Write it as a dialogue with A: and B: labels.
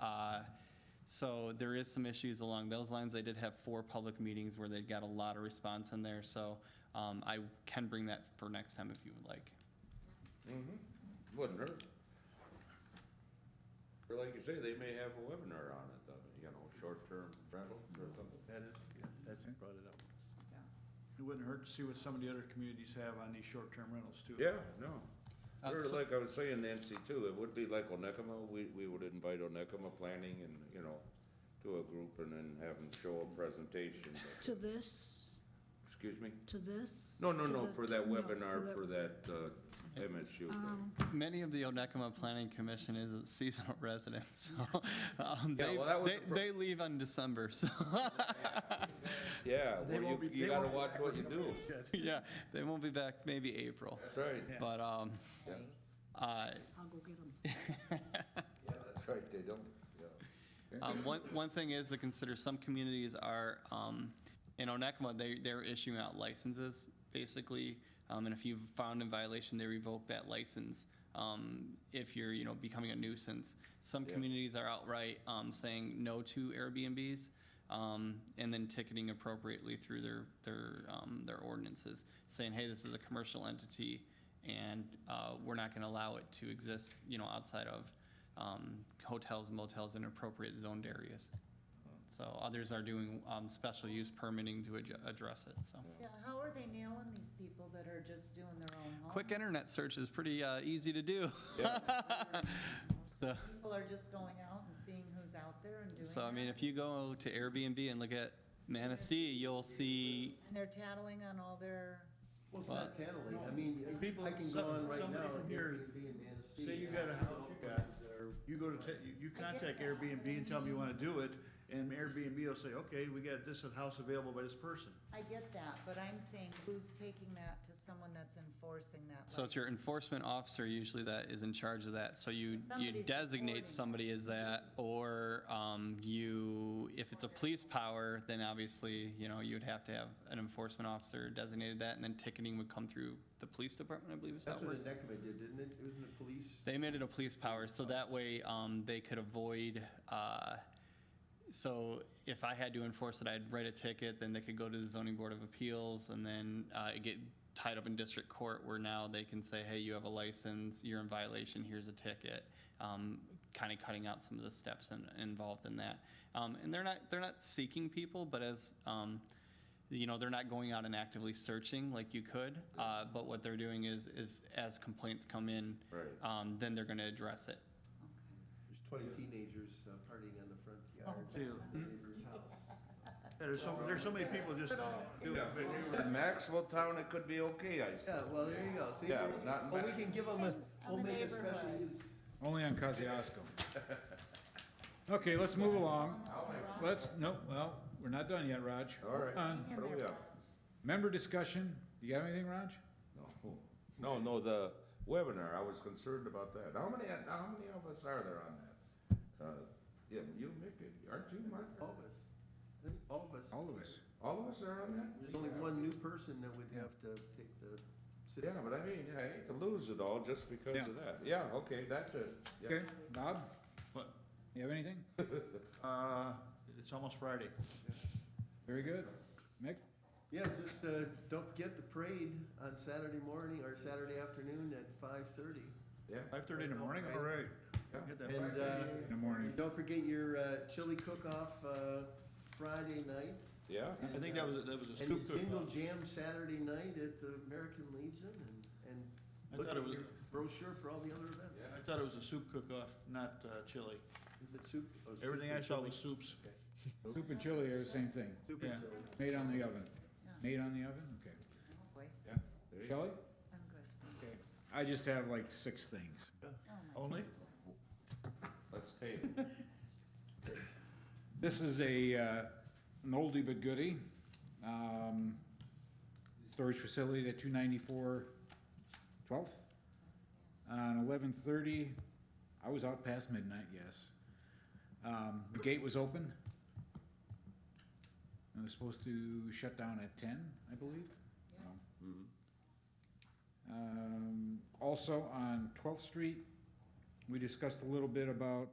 A: Uh, So there is some issues along those lines. They did have four public meetings where they got a lot of response in there, so um, I can bring that for next time if you would like.
B: Wouldn't Mm-hmm. hurt. Or like you say, they may have a webinar on it, uh, you know, short-term rentals or something.
C: That is, yeah, that's brought it up.
D: Yeah.
C: It wouldn't hurt to see what some of the other communities have on these short-term rentals too.
B: Yeah, no.
A: Uh,
B: Or
A: so-
B: like I was saying, Nancy, too, it would be like Onekama, we, we would invite Onekama Planning and, you know, to a group and then have them show a presentation.
D: To this,
B: Excuse me?
D: to this?
B: No, no,
D: to
B: no,
D: the-
B: for that
D: no, Oh.
B: webinar,
D: the- Um,
B: for that uh, MSU. thing.
A: Many of the Onekama Planning Commission is seasonal residents, so um,
B: Yeah,
A: they,
B: well, that was
A: they-
B: the pro-
A: they leave on December, so,
B: Yeah,
C: They
B: well,
C: won't
B: you,
C: be-
B: you
C: they
B: gotta
C: won't be
B: watch
C: back
B: what
C: for
B: you
C: a
B: do.
C: couple of years yet.
A: yeah, they won't be back maybe April.
B: That's right.
C: Yeah.
A: But, um,
B: Yeah,
A: uh,
D: I'll go get them.
B: Yeah, that's right, they don't, yeah.
A: Um, one, one thing is to consider, some communities are, um, in Onekma, they, they're issuing out licenses, basically. Um, and if you've found in violation, they revoke that license, um, if you're, you know, becoming a nuisance. Some
B: Yeah.
A: communities are outright, um, saying no to Airbnbs, um, and then ticketing appropriately through their, their, um, their ordinances, saying, hey, this is a commercial entity, and, uh, we're not gonna allow it to exist, you know, outside of, um, hotels, motels in appropriate zoned areas. So others are doing um, special use permitting to adj- address it, so.
E: Yeah, how are they nailing these people that are just doing their own home?
A: Quick internet search is pretty uh, easy to do. So,
E: People are just going out and seeing who's out there and doing
A: so I mean,
E: that.
A: if you go to Airbnb and look at Manistee, you'll see,
E: And they're tattling on all their,
F: Well, it's not tattling, I mean,
C: And people-
F: I can go on right
C: somebody
F: now.
C: from
F: and
C: here,
F: Airbnb and Manistee,
C: Say you got a house you got, or you go to, ta- you- you contact Airbnb and tell them you wanna do it, and Airbnb will say, okay, we got this house available by this person.
E: I get that, but I'm saying who's taking that to someone that's enforcing that?
A: so it's your enforcement officer usually that is in charge of that. So you, you
E: Somebody's reporting.
A: designate somebody as that, or um, you, if it's a police power, then obviously, you know, you'd have to have an enforcement officer designated that, and then ticketing would come through the police department, I believe is how
F: That's
A: it works.
F: what Nekema did, didn't it? Wasn't it police?
A: They made it a police power, so that way um, they could avoid. Uh, so if I had to enforce it, I'd write a ticket, then they could go to the zoning board of appeals, and then uh, it get tied up in district court, where now they can say, "Hey, you have a license. You're in violation. Here's a ticket." Um, kind of cutting out some of the steps in, involved in that. Um, and they're not they're not seeking people, but as um, you know, they're not going out and actively searching like you could, uh, but what they're doing is, is as complaints come in,
B: Right.
A: um, then they're gonna address it.
F: There's twenty teenagers uh, partying on the front
E: Oh,
F: yard
C: Yeah.
F: of the neighbor's house.
C: There's so, there's so many people just do
B: Yeah, if
C: it.
B: it were in Maxwell Town, it could be okay, I see.
F: Yeah, well, there you go, see?
B: Yeah, not
F: Well, we
B: Manistee.
F: can give them a,
E: On the
F: we'll make a special
E: neighborhood.
F: use.
G: Only on Kosciuszko. Okay, let's move along. Let's, no, well, we're not done yet, Raj.
B: All right.
G: Uh,
E: in
B: What do we
E: their-
B: have?
G: Member discussion, you got anything, Raj?
B: No, no, no, the webinar, I was concerned about that. How many, how many of us are there on that? Uh, Yeah, you, Mick, aren't you, Mark?
F: All of us, I think all of us.
G: All of us.
B: All of us are on that?
F: There's only one new person that would have to take the. sit-
B: Yeah, but I mean, I hate to lose it all just because of
G: Yeah.
B: that. Yeah, okay, that's it. Yeah.
G: Okay, Bob,
C: But,
G: you have anything?
C: uh, it's almost Friday.
G: Very good. Mick?
F: Yeah, just, uh, don't forget the parade on Saturday morning or Saturday afternoon at five-thirty.
B: Yeah,
C: Five-thirty in the morning, all right. Get that
F: And, uh.
G: In the morning.
F: Don't forget your uh, chili cook-off uh, Friday night.
B: yeah,
C: I think that was, that was a
F: And
C: scoop
F: your Jingle
C: cook.
F: Jam Saturday night at the American Legion and,
C: I
F: and look
C: thought it
F: at
C: was-
F: your brochure for all the other events.
C: I thought it was a soup cook-off, not uh, chili.
F: Is it soup? oh, soup
C: Everything
F: and
C: I saw
F: chili.
C: was soups.
G: Soup and chili are the same thing.
F: Soup and
C: yeah.
F: chili.
G: Made on the oven.
E: Yeah.
G: Made on the oven, okay.
E: Oh, boy,
B: yeah. There you go.
G: Shelley?
E: I'm good.
G: Okay. I just have like six things.
E: Oh, my
C: Only?
B: Let's table. it.
G: This is a, uh, an oldie but goodie. Um, storage facility at two ninety-four twelfth. On eleven thirty, I was out past midnight, yes. Um, the gate was open. It was supposed to shut down at ten, I believe.
E: Yes.
F: Mm-hmm.
G: Um, also on Twelfth Street, we discussed a little bit about